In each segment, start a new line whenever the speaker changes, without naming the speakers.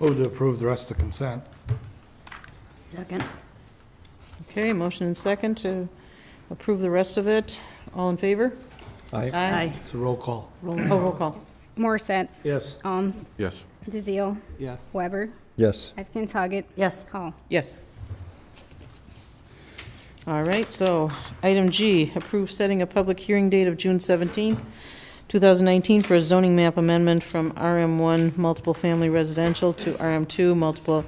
Move to approve the rest of the consent.
Second.
Okay, motion and second to approve the rest of it. All in favor?
Aye.
Aye.
It's a roll call.
Roll oh, roll call.
Morissette.
Yes.
Alms.
Yes.
DeZiel.
Yes.
Weber.
Yes.
Atkins Hoggett.
Yes.
Hall.
Yes. All right, so item G, approve setting a public hearing date of June 17th, 2019 for a zoning map amendment from RM1 Multiple Family Residential to RM2 Multiple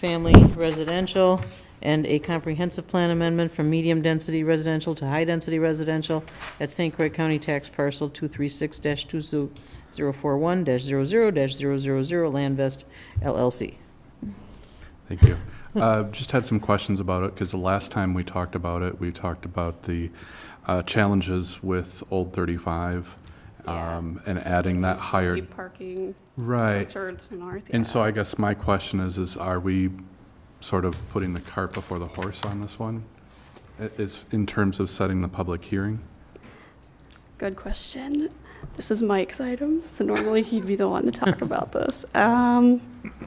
Family Residential, and a comprehensive plan amendment from medium-density residential to high-density residential at St. Croix County Tax Parcel 236-2041-00-000 Land Vest LLC.
Thank you. Uh, Just had some questions about it, because the last time we talked about it, we talked about the uh, challenges with Old 35 um, and adding that higher,
Be Parking
right.
structure to the north.
And
yeah.
so I guess my question is, is are we sort of putting the cart before the horse on this one? I- Is, in terms of setting the public hearing?
Good question. This is Mike's item, so normally he'd be the one to talk about this. Um,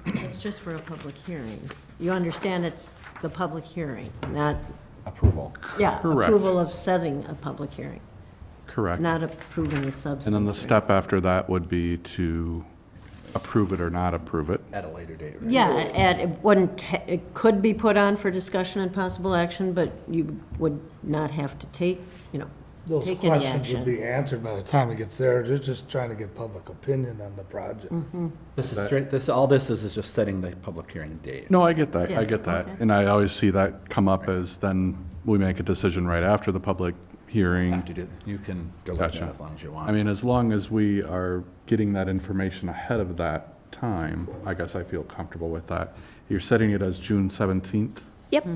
It's just for a public hearing. You understand it's the public hearing, not,
Approval.
yeah,
Correct.
approval of setting a public hearing,
Correct.
not approving the substance.
And then the
or-
step after that would be to approve it or not approve it.
At a later date, right?
Yeah, and it wouldn't, ha- it could be put on for discussion and possible action, but you would not have to take, you know,
Those
take any
questions would
action.
be answered by the time it gets there. They're just trying to get public opinion on the project.
Mm-hmm.
This is straight, this, all this is, is just setting the public hearing date.
No, I get that,
Yeah,
I get that.
okay.
And I always see that come up as then we make a decision right after the public
You
hearing.
have to do, you can delay that
Gotcha.
as long as you want.
I mean, as long as we are getting that information ahead of that time, I guess I feel comfortable with that. You're setting it as June 17th?
Yep,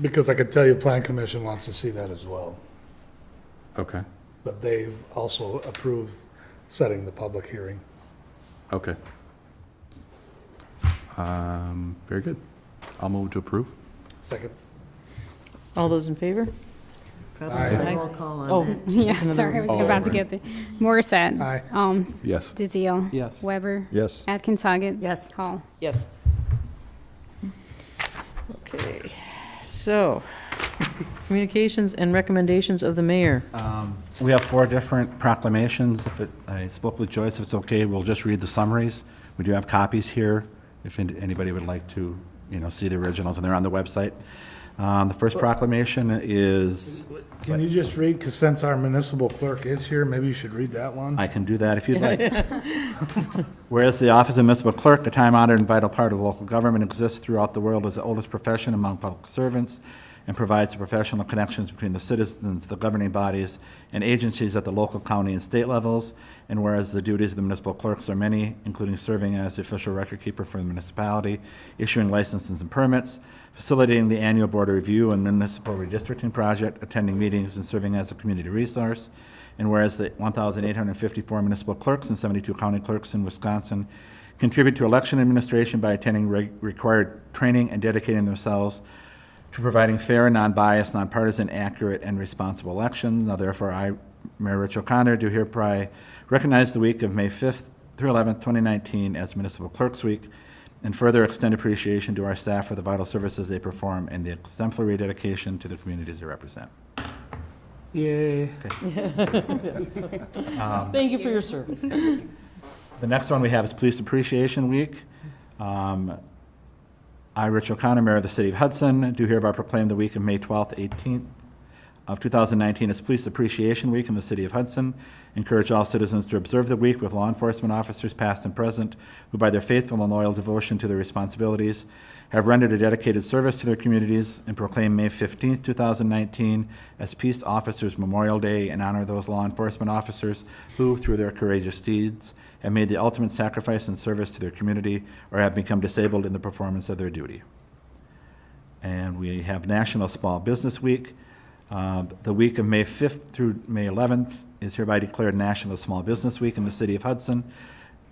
Because I could tell you, Plan Commission wants to see that as well.
Okay,
But they've also approved setting the public hearing.
okay. Um, Very good. I'll move to approve.
Second.
All those in favor?
Probably roll call
Oh.
on that.
It's
Yeah,
another
sorry, I was
one.
about to
Oh,
get there. Morissette.
Aye.
Alms.
Yes.
DeZiel.
Yes.
Weber.
Yes.
Atkins Hoggett.
Yes.
Hall.
Yes. Okay, so, communications and recommendations of the mayor.
Um, We have four different proclamations. If it, I spoke with Joyce, if it's okay, we'll just read the summaries. We do have copies here, if an- anybody would like to, you know, see the originals, and they're on the website. Um, The first proclamation is,
Can you just read, because since our municipal clerk is here, maybe you should read that one?
I can do that if you'd like. Whereas the office of municipal clerk, a time-honored and vital part of local government, exists throughout the world as the oldest profession among public servants and provides the professional connections between the citizens, the governing bodies, and agencies at the local, county, and state levels. And whereas the duties of the municipal clerks are many, including serving as the official record keeper for the municipality, issuing licenses and permits, facilitating the annual board review and municipal redistricting project, attending meetings, and serving as a community resource. And whereas the 1,854 municipal clerks and 72 county clerks in Wisconsin contribute to election administration by attending reg- required training and dedicating themselves to providing fair, non-biased, nonpartisan, accurate, and responsible elections. Now therefore, I, Mayor Rich O'Connor, do hereby recognize the week of May 5th through 11th, 2019 as Municipal Clerks Week, and further extend appreciation to our staff for the vital services they perform and the exemplary dedication to the communities they represent.
Yay.
Thank you for your service.
The next one we have is Police Appreciation Week. Um, I, Rich O'Connor, Mayor of the City of Hudson, do hereby proclaim the week of May 12th, 18th of 2019 as Police Appreciation Week in the City of Hudson. Encourage all citizens to observe the week with law enforcement officers, past and present, who by their faithful and loyal devotion to their responsibilities have rendered a dedicated service to their communities, and proclaim May 15th, 2019 as Peace Officers Memorial Day and honor those law enforcement officers who, through their courageous deeds, have made the ultimate sacrifice in service to their community or have become disabled in the performance of their duty. And we have National Small Business Week. Uh, The week of May 5th through May 11th is hereby declared National Small Business Week in the city of Hudson,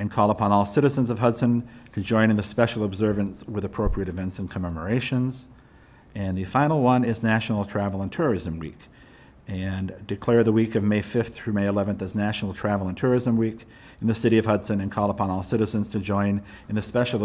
and call upon all citizens of Hudson to join in the special observance with appropriate events and commemorations. And the final one is National Travel and Tourism Week. And declare the week of May 5th through May 11th as National Travel and Tourism Week in the city of Hudson, and call upon all citizens to join in the special